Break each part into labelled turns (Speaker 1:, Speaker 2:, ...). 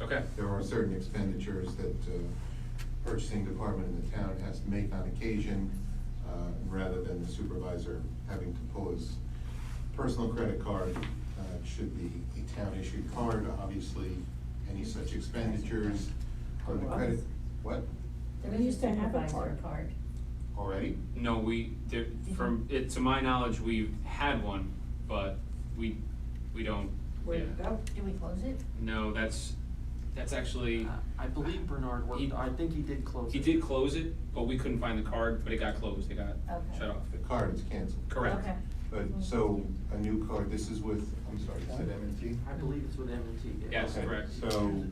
Speaker 1: Okay.
Speaker 2: There are certain expenditures that uh, purchasing department in the town has to make on occasion, uh, rather than the supervisor having to pull his personal credit card. Uh, it Should be a town-issued card, obviously, any such expenditures on the credit, what,
Speaker 3: We used to have a
Speaker 4: Supervisor
Speaker 3: card.
Speaker 4: card.
Speaker 2: already?
Speaker 1: No, we, there, from, it, to my knowledge, we've had one, but we, we don't,
Speaker 3: Where'd it
Speaker 1: yeah.
Speaker 3: go?
Speaker 4: Did we close it?
Speaker 1: No, that's, that's actually,
Speaker 5: Uh, I believe Bernard
Speaker 1: He-
Speaker 5: worked, I think he did close
Speaker 1: he
Speaker 5: it.
Speaker 1: did close it, but we couldn't find the card, but it got closed, it got
Speaker 4: Okay.
Speaker 1: shut off.
Speaker 2: The card is canceled.
Speaker 1: Correct.
Speaker 4: Okay.
Speaker 2: But, so, a new card, this is with, I'm sorry, is it M and T?
Speaker 5: I believe it's with M and T, yeah.
Speaker 1: Yes,
Speaker 2: Okay,
Speaker 1: correct.
Speaker 2: So,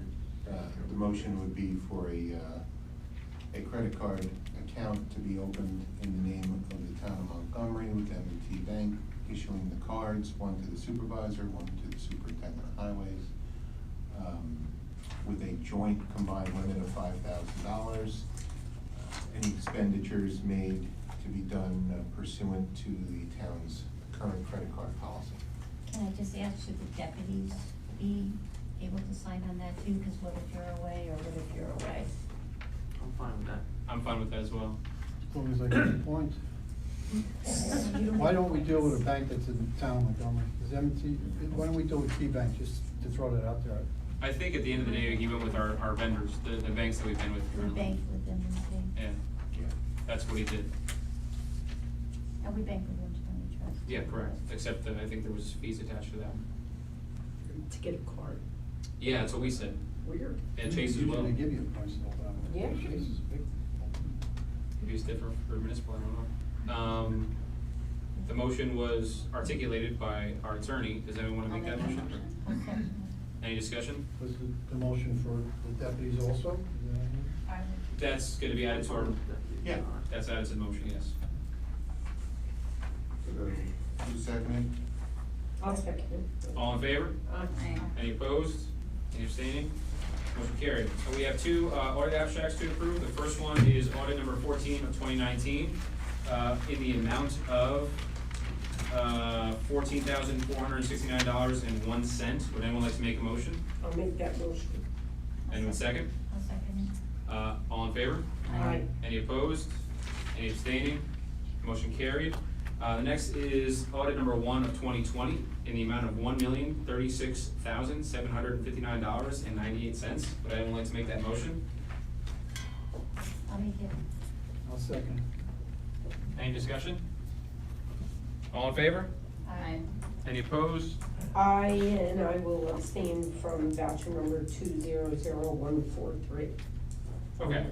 Speaker 2: uh, the motion would be for a, uh, a credit card account to be opened in the name of the town of Montgomery with M&T Bank, issuing the cards, one to the supervisor, one to the superintendent of highways, um, with a joint combined limit of five thousand dollars. Uh, Any expenditures made to be done uh, pursuant to the town's current credit card policy.
Speaker 4: Can I just ask, should the deputies be able to sign on that too? Because what if you're away or what if you're away?
Speaker 5: I'm fine with that.
Speaker 1: I'm fine with that as well.
Speaker 6: As long as I get the point. Why don't we deal with a bank that's in town Montgomery? Is M&T, why don't we deal with KeyBank, just to throw that out there?
Speaker 1: I think at the end of the day, even with our, our vendors, the, the banks that we've been with
Speaker 4: The
Speaker 1: currently.
Speaker 4: bank with them, we
Speaker 1: Yeah,
Speaker 4: think.
Speaker 1: that's what he did.
Speaker 4: And we bank with them, County Trust.
Speaker 1: Yeah, correct, except that I think there was fees attached to that.
Speaker 3: To get a card.
Speaker 1: Yeah, that's what we said.
Speaker 3: Weird.
Speaker 1: And Chase as well.
Speaker 6: Usually they give you a price all down.
Speaker 3: Yeah.
Speaker 6: Chase is big.
Speaker 1: Maybe it's different for municipal, I don't know. Um, the motion was articulated by our attorney. Does anyone wanna
Speaker 4: I'll
Speaker 1: make that motion?
Speaker 4: I'll second
Speaker 1: Any discussion?
Speaker 6: Was the, the motion for the deputies also? Is that it?
Speaker 4: it. I would-
Speaker 1: That's gonna be added to our,
Speaker 5: I'm fine with that.
Speaker 2: Yeah.
Speaker 1: that's added to the motion, yes.
Speaker 2: Who seconded?
Speaker 3: I'll second it.
Speaker 1: All in favor?
Speaker 4: Aye.
Speaker 1: Any opposed? Any abstaining? Motion carried. So we have two, uh, audit abstracts to approve. The first one is audit number fourteen of twenty nineteen, uh, in the amount of, uh, fourteen thousand four hundred and sixty-nine dollars and one cent. Would anyone like to make a motion?
Speaker 3: I'll make that motion.
Speaker 1: Anyone second?
Speaker 4: I'll second it.
Speaker 1: Uh, all in favor?
Speaker 3: Aye.
Speaker 1: Any opposed? Any abstaining? Motion carried. Uh, the next is audit number one of twenty twenty in the amount of one million, thirty-six thousand, seven hundred and fifty-nine dollars and ninety-eight cents. Would anyone like to make that motion?
Speaker 4: I'll make it.
Speaker 6: I'll second.
Speaker 1: Any discussion? All in favor?
Speaker 4: Aye.
Speaker 1: Any opposed?
Speaker 3: I, and I will abstain from voucher number two zero zero one four three.
Speaker 1: Okay.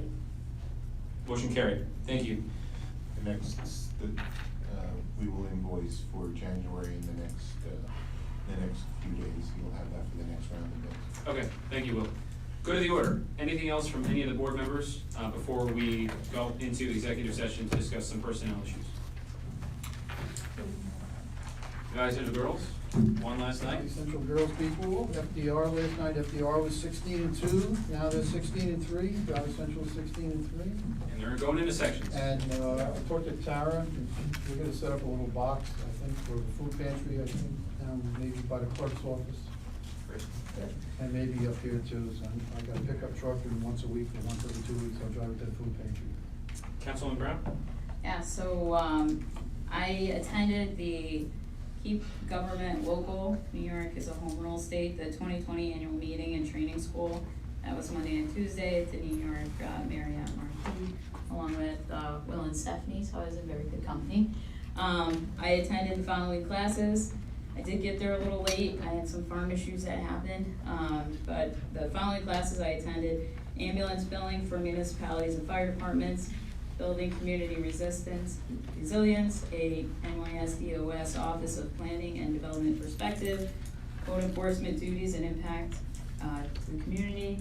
Speaker 1: Motion carried. Thank you.
Speaker 2: The next, the, uh, we will invoice for January in the next, uh, the next few days. You'll have that for the next round of bids.
Speaker 1: Okay, thank you, Will. Go to the order. Anything else from any of the board members, uh, before we go into executive session to discuss some personnel issues? Guys and girls, one last night.
Speaker 6: Valley Central Girls Beat Pool, FDR last night, FDR was sixteen and two, now they're sixteen and three, Valley Central sixteen and three.
Speaker 1: And they're going into sections.
Speaker 6: And uh, I talked to Tara, and we're gonna set up a little box, I think, for the food pantry, I think, um, maybe by the clerk's office,
Speaker 1: Great.
Speaker 6: and maybe up here too, so I'm- I got a pickup truck, and once a week, or once every two weeks, I'll drive it to the food pantry.
Speaker 1: Councilman Brown?
Speaker 7: Yeah, so, um, I attended the Keep Government Local, New York is a home rule state, the twenty twenty annual meeting and training school. That was Monday and Tuesday at the New York uh, Marriott Marquis, along with, uh, Will and Stephanie, so I was in very good company. Um, I attended the following classes. I did get there a little late, I had some farm issues that happened, um, but the following classes I attended, ambulance billing for municipalities and fire departments, building community resistance, resilience, a NYSDOS E Office of Planning and Development Perspective, code enforcement duties and impact, uh, to the community.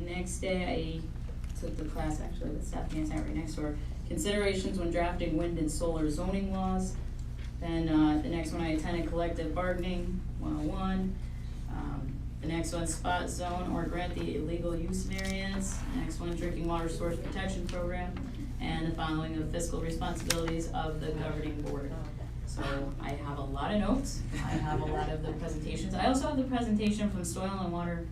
Speaker 7: The Next day, I took the class actually with Stephanie, I sat right next to her, considerations when drafting wind and solar zoning laws. Then, uh, the next one, I attended collective bargaining, one-on-one. Um, The next one, spot zone or grant the illegal use variance. Next one, drinking water source protection program. And the following of fiscal responsibilities of the governing board. So I have a lot of notes. I have a lot of the presentations. I also have the presentation from Soil and Water